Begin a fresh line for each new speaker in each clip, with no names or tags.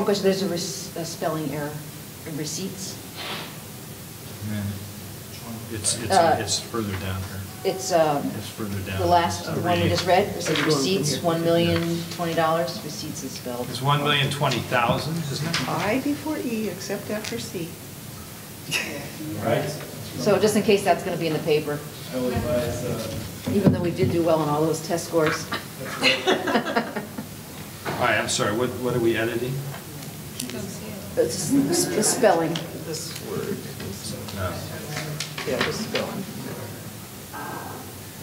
Because there's a res- a spelling error in receipts.
It's, it's,
Uh,
it's further down here.
It's, um,
It's further down.
the last,
Uh,
the one we
read.
just read, it said
It's going from
receipts,
here.
one million, twenty dollars, receipts is spelled.
It's one million twenty thousand, isn't it?
I before E, except after C.
Right?
So just in case that's gonna be in the paper,
I will advise, uh,
even though we did do well on all those test scores.
All right, I'm sorry, what, what are we editing?
It's s- the spelling.
This word.
No.
Yeah, this is going.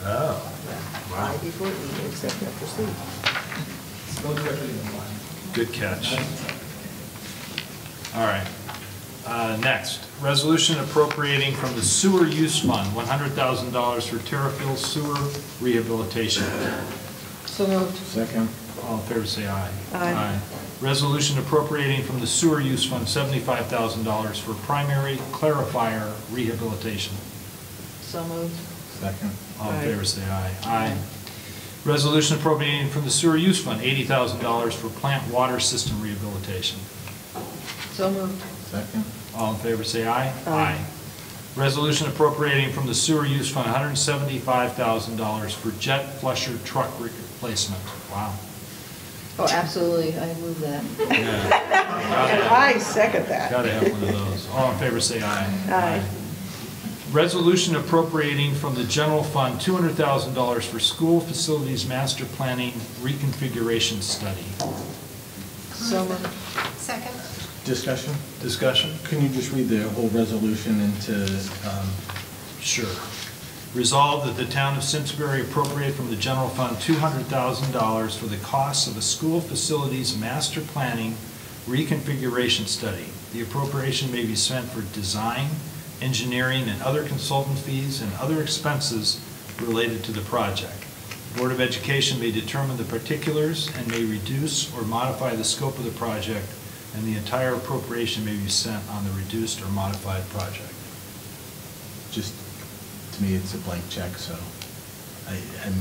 Oh,
I
wow,
before E, except after C.
go directly to the line.
good catch. All right. Uh, Next, resolution appropriating from the sewer use fund, $100,000 for Terrafield sewer rehabilitation.
So moved.
Second.
All in favor, say aye.
Aye.
Resolution appropriating from the sewer use fund, $75,000 for primary clarifier rehabilitation.
So moved.
Second.
All in
Aye.
favor, say aye. Aye. Resolution appropriating from the sewer use fund, $80,000 for plant water system rehabilitation.
So moved.
Second.
All in favor, say aye.
Aye.
Resolution appropriating from the sewer use fund $175,000 for jet flusher truck replacement. Wow.
Oh, absolutely, I moved that.
I second that.
Gotta have one of those. All in favor, say aye.
Aye.
Resolution appropriating from the general fund $200,000 for school facilities master planning reconfiguration study.
So moved.
Second.
Discussion?
Discussion?
Can you just read the whole resolution into, um,
Sure. Resolved that the town of Simsbury appropriate from the general fund $200,000 for the costs of a school facilities master planning reconfiguration study. The appropriation may be spent for design, engineering, and other consultant fees and other expenses related to the project. Board of Education may determine the particulars and may reduce or modify the scope of the project, and the entire appropriation may be spent on the reduced or modified project.
just, to me, it's a blank check, so I, I'm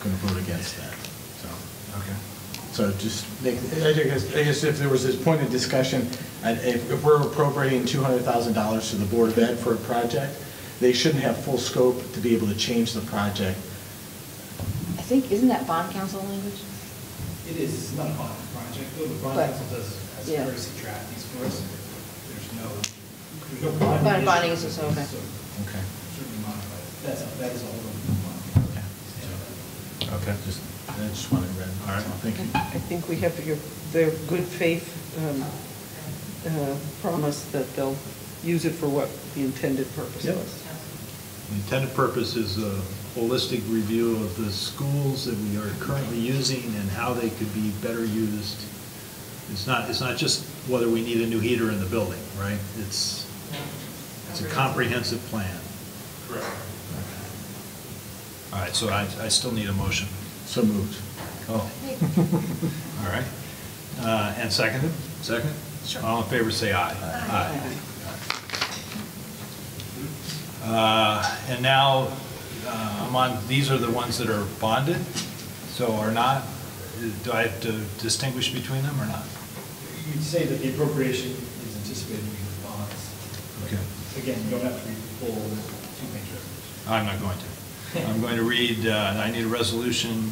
gonna vote against that, so.
Okay.
So just make, I guess, I guess if there was this point of discussion, and if, if we're appropriating two hundred thousand dollars to the Board of Ed for a project, they shouldn't have full scope to be able to change the project.
I think, isn't that bond council language?
It is, it's not a bond project, though the bond
But-
council does, has
yeah.
courtesy draft these for us. There's no, there's no
Bond-
bond.
bonding
issue,
is also, okay.
so
Okay.
Certainly modify it. That's, that is all over the bond.
Okay.
Just, I just wanted to read.
All right.
Thank you.
I think we have your, their good faith um, uh, promise that they'll use it for what the intended purpose
Yep.
was.
The intended purpose is a holistic review of the schools that we are currently using and how they could be better used. It's not, it's not just whether we need a new heater in the building, right? It's, it's a comprehensive plan. Correct. All right, so I, I still need a motion.
So moved.
Oh. All right. Uh, And seconded? Second?
Sure.
All in favor, say aye.
Aye.
Aye. Uh, And now, uh, I'm on, these are the ones that are bonded, so are not, do I have to distinguish between them or not?
You'd say that the appropriation is anticipated to be the bonds.
Okay.
Again, you don't have to read the full two-page resolution.
I'm not going to. I'm going to read, uh, I need a resolution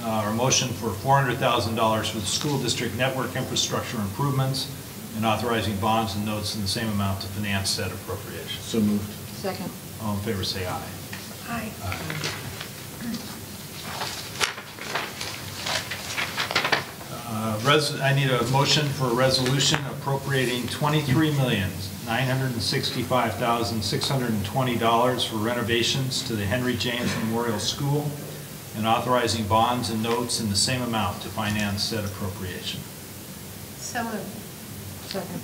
uh, or motion for $400,000 for the school district network infrastructure improvements and authorizing bonds and notes in the same amount to finance said appropriation.
So moved.
Second.
All in favor, say aye.
Aye.
Uh, res- I need a motion for a resolution appropriating $23,965,620 for renovations to the Henry James Memorial School and authorizing bonds and notes in the same amount to finance said appropriation.
So moved.
Second.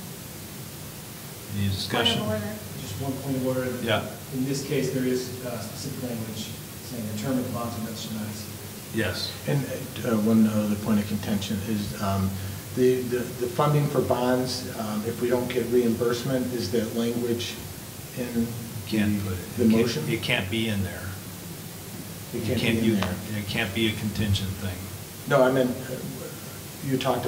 Any discussion?
Point of order.
Just one point of order.
Yeah.
In this case, there is uh, specific language saying the term of the bonds and notes shall not exceed.
Yes.
And uh, one other point of contention is um, the, the the funding for bonds, um, if we don't get reimbursement, is that language in
Can't put it.
the
It can't-
motion?
It can't be in there.
It
You
can't be in
you-
there.
It can't be a contingent thing.
No, I meant, uh, you talked